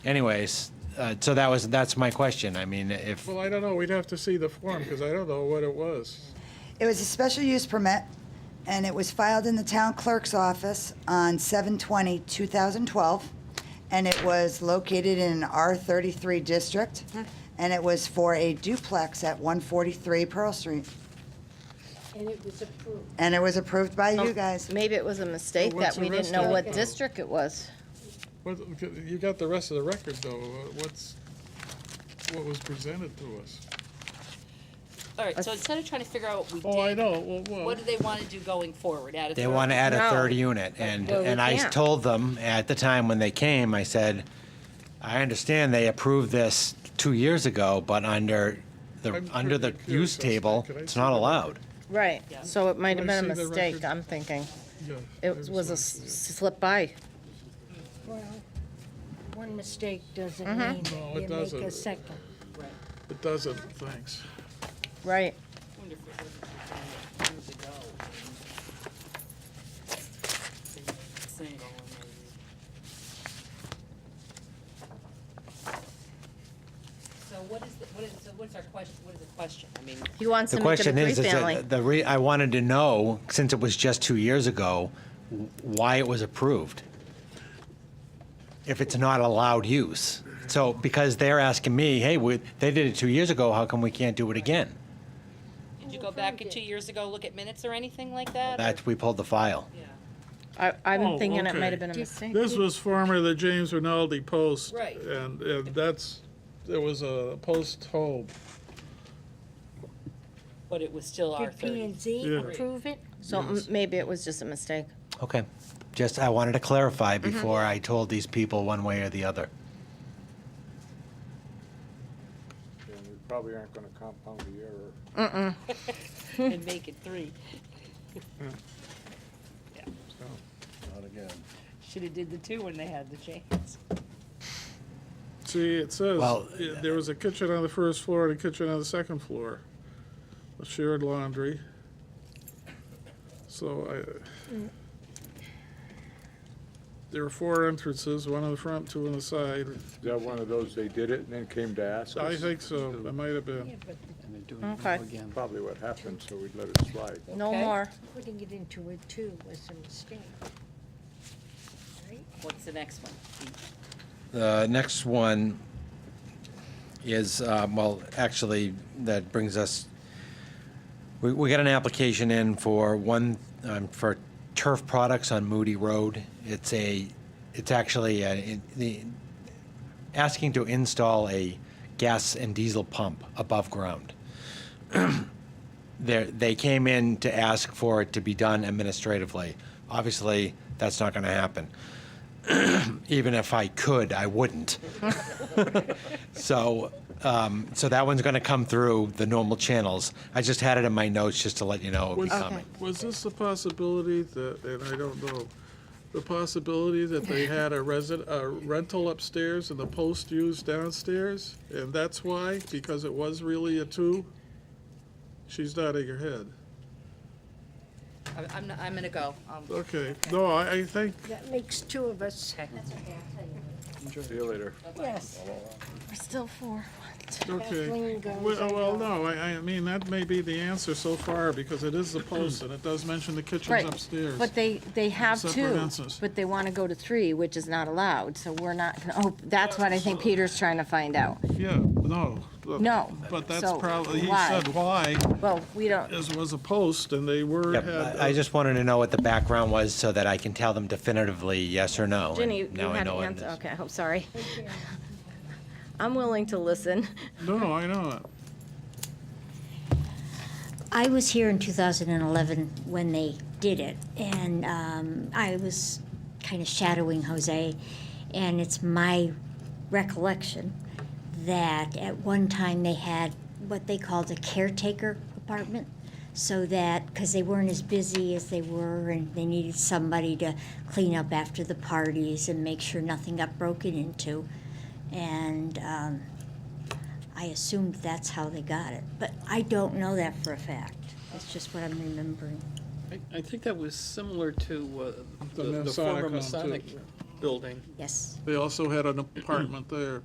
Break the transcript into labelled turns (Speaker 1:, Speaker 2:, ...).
Speaker 1: Anyways, uh, so that was, that's my question. I mean, if,
Speaker 2: Well, I don't know, we'd have to see the form, because I don't know what it was.
Speaker 3: It was a special use permit, and it was filed in the town clerk's office on 7/20/2012, and it was located in an R33 district, and it was for a duplex at 143 Pearl Street,
Speaker 4: And it was approved.
Speaker 3: and it was approved by you guys.
Speaker 5: Maybe it was a mistake
Speaker 2: Well, what's
Speaker 5: that
Speaker 2: the
Speaker 5: we
Speaker 2: rest
Speaker 5: didn't know
Speaker 2: of
Speaker 5: what
Speaker 2: it?
Speaker 5: district it was.
Speaker 2: What, you got the rest of the record, though, Uh, what's, what was presented to us?
Speaker 6: All right, so instead of trying to figure out what we
Speaker 2: Oh, I
Speaker 6: did,
Speaker 2: know, well,
Speaker 6: what
Speaker 2: well,
Speaker 6: do they want to do going forward? Add a
Speaker 1: they
Speaker 6: third?
Speaker 1: want to add a
Speaker 5: No.
Speaker 1: third unit, and,
Speaker 5: Well, we
Speaker 1: and I
Speaker 5: can't.
Speaker 1: told them at the time when they came, I said, I understand they approved this two years ago, but under the,
Speaker 2: I'm
Speaker 1: under the
Speaker 2: pretty curious
Speaker 1: use
Speaker 2: as to-
Speaker 1: table,
Speaker 2: could I
Speaker 1: it's
Speaker 2: see
Speaker 1: not
Speaker 2: the-
Speaker 1: allowed.
Speaker 5: Right,
Speaker 6: Yeah.
Speaker 5: so it might have
Speaker 2: Can I
Speaker 5: been a
Speaker 2: see the
Speaker 5: mistake,
Speaker 2: record?
Speaker 5: I'm thinking.
Speaker 2: yeah. I
Speaker 5: It was a
Speaker 2: not-
Speaker 5: s- slip by.
Speaker 4: Well, one mistake doesn't mean
Speaker 2: No, it
Speaker 4: that you make
Speaker 2: doesn't.
Speaker 4: a second.
Speaker 2: It doesn't, thanks.
Speaker 5: Right.
Speaker 6: I wonder if it was years ago. Single and maybe. So what is, the- what is, so what's our question, what is the question? I mean,
Speaker 5: He wants
Speaker 1: The
Speaker 5: to make it a
Speaker 1: question is, is
Speaker 5: three-family.
Speaker 1: that the re, I wanted to know, since it was just two years ago, w- why it was approved. If it's not allowed use. So, because they're asking me, hey, we, they did it two years ago, how come we can't do it again?
Speaker 6: did you
Speaker 4: Oh,
Speaker 6: go back two years ago, look at minutes or anything like that? or-
Speaker 1: That's, we pulled the file.
Speaker 6: Yeah.
Speaker 5: I,
Speaker 2: Oh,
Speaker 5: I'm thinking it
Speaker 2: okay.
Speaker 5: might have been a mistake.
Speaker 2: This was former the James Rinaldi Post.
Speaker 6: Right.
Speaker 2: And, and that's, there was a post home.
Speaker 6: But it was still R
Speaker 4: Did P
Speaker 6: thirty.
Speaker 4: and Z
Speaker 2: Yeah.
Speaker 4: approve it?
Speaker 5: So m- maybe it was just a mistake.
Speaker 1: Okay. Just, I wanted to clarify
Speaker 5: Mm-hmm.
Speaker 1: before I told these people one way or the other.
Speaker 7: and we probably aren't gonna compound the error.
Speaker 6: And make it three.
Speaker 7: Not again.
Speaker 6: Should have did the two when they had the chance.
Speaker 2: See, it says,
Speaker 1: Well,
Speaker 2: uh, there was a kitchen on the first floor and a kitchen on the second floor, a shared laundry. So I, there were four entrances, one on the front, two on the side.
Speaker 7: Is that one of those, they did it and then came to ask
Speaker 2: I
Speaker 7: us?
Speaker 2: think so, it might have been.
Speaker 8: And they're doing
Speaker 2: Mm-hmm.
Speaker 5: Okay.
Speaker 8: it now again.
Speaker 7: Probably what happened, so we'd let it slide.
Speaker 5: No
Speaker 6: Okay.
Speaker 5: more.
Speaker 4: Putting it into a two was a mistake.
Speaker 6: What's the next one?
Speaker 1: The Uh, next one is, um, well, actually, that brings us, we, we got an application in for one, um, for turf products on Moody Road. It's a, it's actually, a- in- the, asking to install a gas and diesel pump above ground. They're, they came in to ask for it to be done administratively. Obviously, that's not gonna happen even if I could, I wouldn't. so, um, so that one's going to come through the normal channels. I just had it in my notes just to let you know it'd be
Speaker 2: Was-
Speaker 1: coming.
Speaker 2: Was this the possibility that, and I don't know, the possibility that they had a resident, a rental upstairs and the post used downstairs? And that's why, because it was really a two? She's nodding her head.
Speaker 6: I'm, I'm, not- I'm gonna go. Um,
Speaker 2: Okay, no, I, I think,
Speaker 4: That makes two of us.
Speaker 7: See you later.
Speaker 4: Yes.
Speaker 5: We're still four.
Speaker 2: okay.
Speaker 4: Kathleen goes,
Speaker 2: Well,
Speaker 4: I
Speaker 2: well,
Speaker 4: go.
Speaker 2: no, I, I mean, that may be the answer so far, because it is the post and it does mention the kitchen's
Speaker 5: Right,
Speaker 2: upstairs.
Speaker 5: But they, they have
Speaker 2: Separate
Speaker 5: two,
Speaker 2: answers.
Speaker 5: but they want to go to three, which is not allowed, so we're not, oh, that's what I think Peter's trying to find out.
Speaker 2: Yeah, no. look,
Speaker 5: No,
Speaker 2: But that's
Speaker 5: so
Speaker 2: probably, he
Speaker 5: why?
Speaker 2: said why,
Speaker 5: Well, we don't,
Speaker 2: as was a post, and they were,
Speaker 1: Yep,
Speaker 2: had.
Speaker 1: I I just wanted to know what the background was so that I can tell them definitively yes or no. and
Speaker 5: Ginny, you
Speaker 1: now I
Speaker 5: had a
Speaker 1: know what it
Speaker 5: hand,
Speaker 1: is.
Speaker 5: okay, I'm sorry. I'm willing to listen.
Speaker 2: No, no, I know it.
Speaker 9: I was here in 2011 when they did it, and um, I was kind of shadowing Jose, and it's my recollection that at one time they had what they called a caretaker apartment, so that because they weren't as busy as they were, and they needed somebody to clean up after the parties and make sure nothing got broken into, and. Um, I assumed that's how they got it, but I don't know that for a fact. That's just what I'm remembering.
Speaker 10: I- I think that was similar to uh,
Speaker 2: The
Speaker 10: the the
Speaker 2: Masonic
Speaker 10: former
Speaker 2: one, too.
Speaker 10: Masonic
Speaker 8: building.
Speaker 9: yes.
Speaker 2: They also had an apartment there.